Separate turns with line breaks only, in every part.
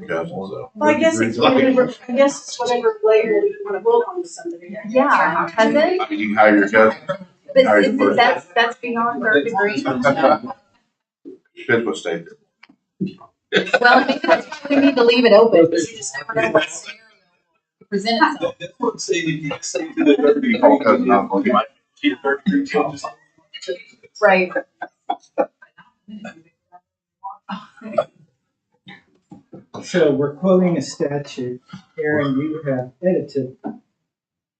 discussion, so.
Well, I guess it's whatever, I guess it's whatever layer you wanna build on to somebody. I guess.
Yeah, has it?
I mean, you can hire your cousin, Are
But
you
isn't
first?
that's that's beyond third degree?
Fifth was stated.
Well, I think that's why we need to leave it open, because you just never know what scenario presents. itself.
That's what I'm saying, if you just say to the third degree,
Oh, that's not okay.
you might be a third degree, you'll just-
Right.
So we're quoting a statute. Aaron, you have edited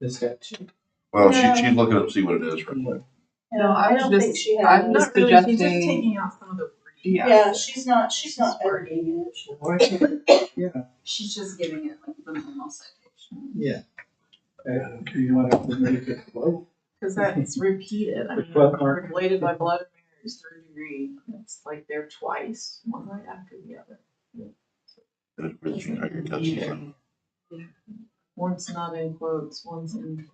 the statute.
Well, she, she'd look it up, see what it is real quick.
No, I
was
don't
just-
think she
I'm
has.
Not
just
really, she's just
suggesting.
taking out some of the.
Yeah, she's not, she's not editing it.
She's just giving it like the normal citation.
Yeah. Uh, do you want to make it low?
Because that's repeated, I
Which
mean,
book, Mark?
related by blood and marriage, is third degree, it's like they're twice, one right after the other.
It is, You can hire your cousin, so
One's not in quotes, one's in.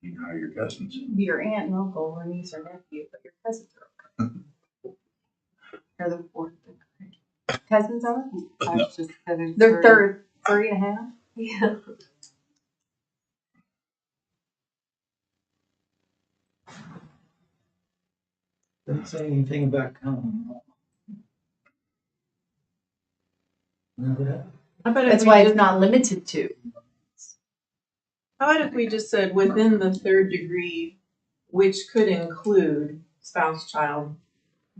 you can hire your cousins.
Your aunt and uncle or niece or nephew, but your cousins are. okay. They're the fourth. degree.
Cousins are?
I was just having
They're
three.
third, three and a half.
Yeah.
Doesn't say anything about common law. Remember that?
How about if
That's
we
why it's
just-
not limited to.
how about if we just said within the third degree, which could include spouse, child,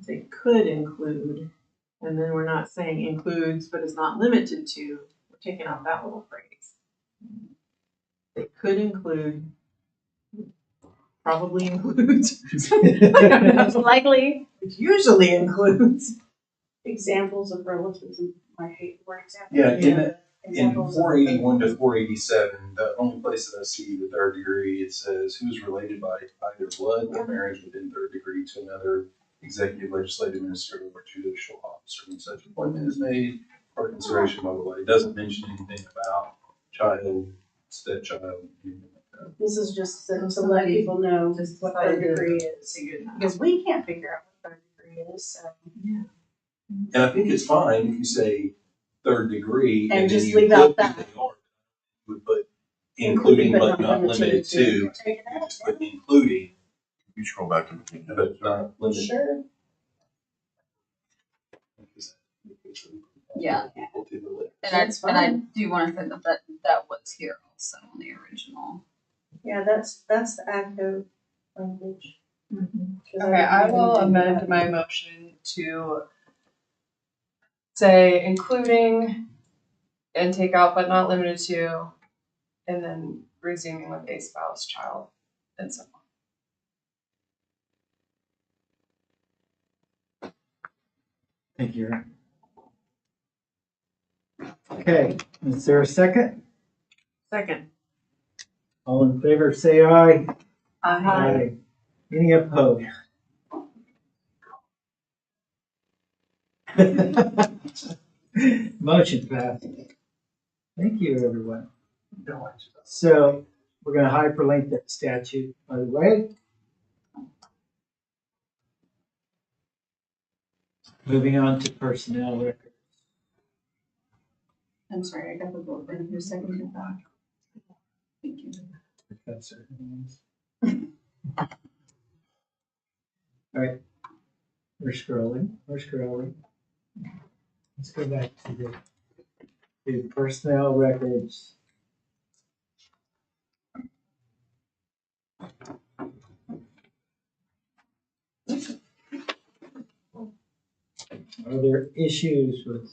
say could include, and then we're not saying includes, but is not limited to, we're taking out that little phrase. It could include, probably includes.
Likely.
It usually includes.
Examples of relativism, I hate the word example.
Yeah, in, in
Examples of-
four eighty-one to four eighty-seven, the only place that I see the third degree, it says who's related by either blood or marriage within third degree to another executive, legislative, ministerial, or judicial officer when such appointment is made or consideration by the way. It doesn't mention anything about child, stepchild, anything like that.
This is just to to let people know
Just
what third
decided.
degree is, because we can't figure out what third degree is, so.
And I think it's fine if you say third degree
And
and then
just
you
leave out
include who
that.
they are. Would put including but not limited to,
Take it
you
out.
just put including
You scroll back to the beginning.
but not limited.
Sure.
Yeah. And
That's
I, and I
fine.
do want to say that that, that was here also on the original.
Yeah, that's, that's the ACO language. 'Cause
Okay, I will
didn't do
amend
that.
my motion to say including and take out but not limited to, and then resuming with a spouse, child, and so on.
Thank you. Aaron. Okay, is there a second?
Second.
All in favor, say aye.
Uh-huh.
Aye.
Any opposed? Motion passed. Thank you, everyone. So we're gonna hyperlink that statute, by the way. Moving on to personnel record.
I'm sorry, I got the vote in your second back. Thank you.
That's it. All right. We're scrolling, we're scrolling. Let's go back to the, to personnel records. Are there issues with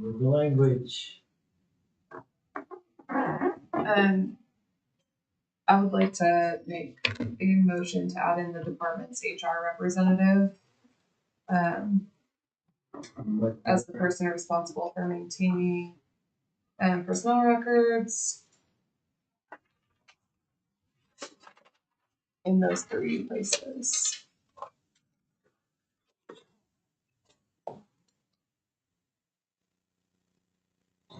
the language?
Um, I would like to make a motion to add in the department's HR representative. Um,
What-
as the person responsible for maintaining, um, personnel records. In those three places.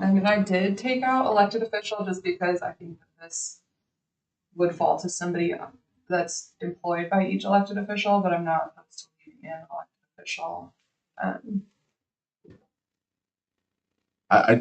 I mean, I did take out elected official just because I think that this would fall to somebody that's employed by each elected official, but I'm not opposed to leaving in elected official. Um,
I, I